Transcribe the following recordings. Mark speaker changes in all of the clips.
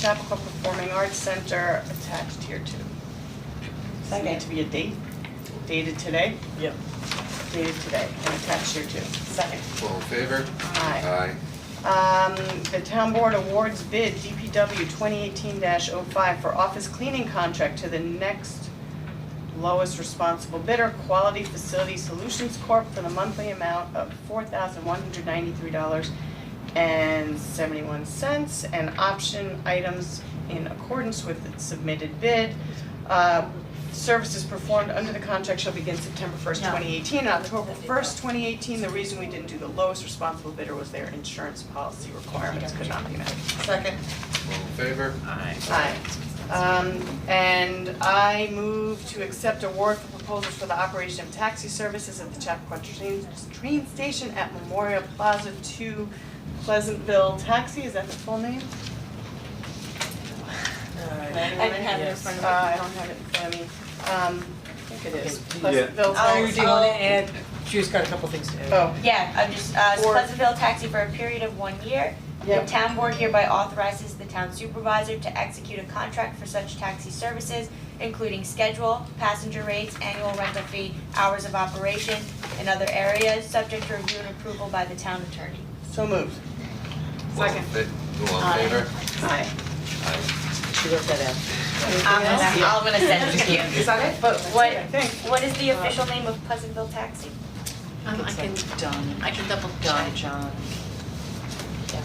Speaker 1: Chappaqua Performing Arts Center attached here too. Does it need to be a date, dated today?
Speaker 2: Yep.
Speaker 1: Dated today, and attached here too. Second.
Speaker 3: All in favor?
Speaker 1: Aye.
Speaker 3: Aye.
Speaker 1: Um, the town board awards bid DPW twenty eighteen 5 for office cleaning contract to the next lowest responsible bidder, Quality Facility Solutions Corp. for the monthly amount of four thousand one hundred ninety-three dollars and seventy-one cents and option items in accordance with the submitted bid. Uh, services performed under the contract shall begin September first,
Speaker 4: No.
Speaker 1: twenty eighteen, and October first, twenty eighteen. The reason we didn't do the lowest responsible bidder was their insurance policy requirements could not be met.
Speaker 4: Second.
Speaker 3: All in favor?
Speaker 1: Aye. Um, and I move to accept award for proposals for the operation of taxi services at the Chappaqua train, train station at Memorial Plaza Two Pleasantville Taxi, is that the full name?
Speaker 4: I didn't have it in front
Speaker 1: Uh,
Speaker 4: of me.
Speaker 1: I don't have it in front of me, um, I think it is,
Speaker 2: Okay.
Speaker 1: Pleasantville
Speaker 4: Oh,
Speaker 2: Claire, do
Speaker 1: Taxi.
Speaker 2: you wanna add, she's got a couple things to add.
Speaker 1: Oh,
Speaker 4: Yeah, I'm just, uh,
Speaker 1: Or-
Speaker 4: Pleasantville Taxi for a period of one year. The
Speaker 1: Yep.
Speaker 4: town board hereby authorizes the town supervisor to execute a contract for such taxi services, including schedule, passenger rates, annual rental fee, hours of operation, and other areas, subject to review and approval by the town attorney.
Speaker 1: so moved.
Speaker 3: All in
Speaker 1: Second.
Speaker 3: fa- All in favor?
Speaker 1: Aye.
Speaker 3: Aye.
Speaker 2: She wrote that out.
Speaker 4: I'm gonna, I'm gonna send it to you.
Speaker 1: Is that it?
Speaker 4: But what,
Speaker 1: I think.
Speaker 4: what is the official name of Pleasantville Taxi?
Speaker 5: Um, I can,
Speaker 2: It's like done,
Speaker 5: I can double
Speaker 2: done,
Speaker 5: check.
Speaker 2: John.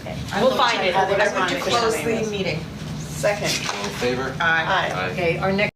Speaker 4: Okay.
Speaker 1: We'll find it.
Speaker 5: I
Speaker 1: Whatever
Speaker 5: would
Speaker 1: the official
Speaker 5: close
Speaker 1: name
Speaker 5: the
Speaker 1: is.
Speaker 5: meeting.
Speaker 1: Second.
Speaker 3: All in favor?
Speaker 1: Aye.
Speaker 3: Aye.
Speaker 2: Okay, our next